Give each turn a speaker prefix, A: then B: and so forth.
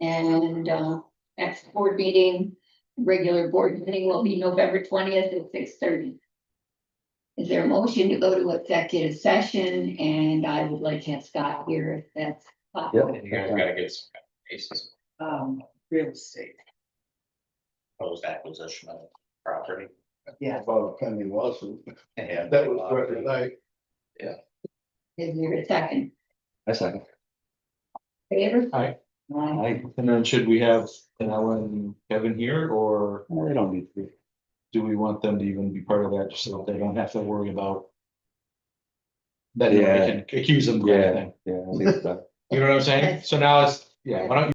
A: And um, next board meeting, regular board meeting will be November twentieth at six thirty. Is there a motion to go to executive session? And I would like to have Scott here if that's possible.
B: You guys gotta get some kind of basis,
C: um, real estate,
B: proposed acquisition of property.
C: yeah.
D: About Penny Lawson,
B: Yeah,
D: that was the other night.
A: Is there a second?
E: I second.
A: Favor?
E: Aye.
A: Aye.
E: And then should we have an Ellen and Kevin here or? They don't need to. Do we want them to even be part of that, just so that they don't have to worry about? That they
F: Yeah.
E: can accuse them of anything,
F: Yeah, I think so.
E: you know what I'm saying? So now it's, yeah, why don't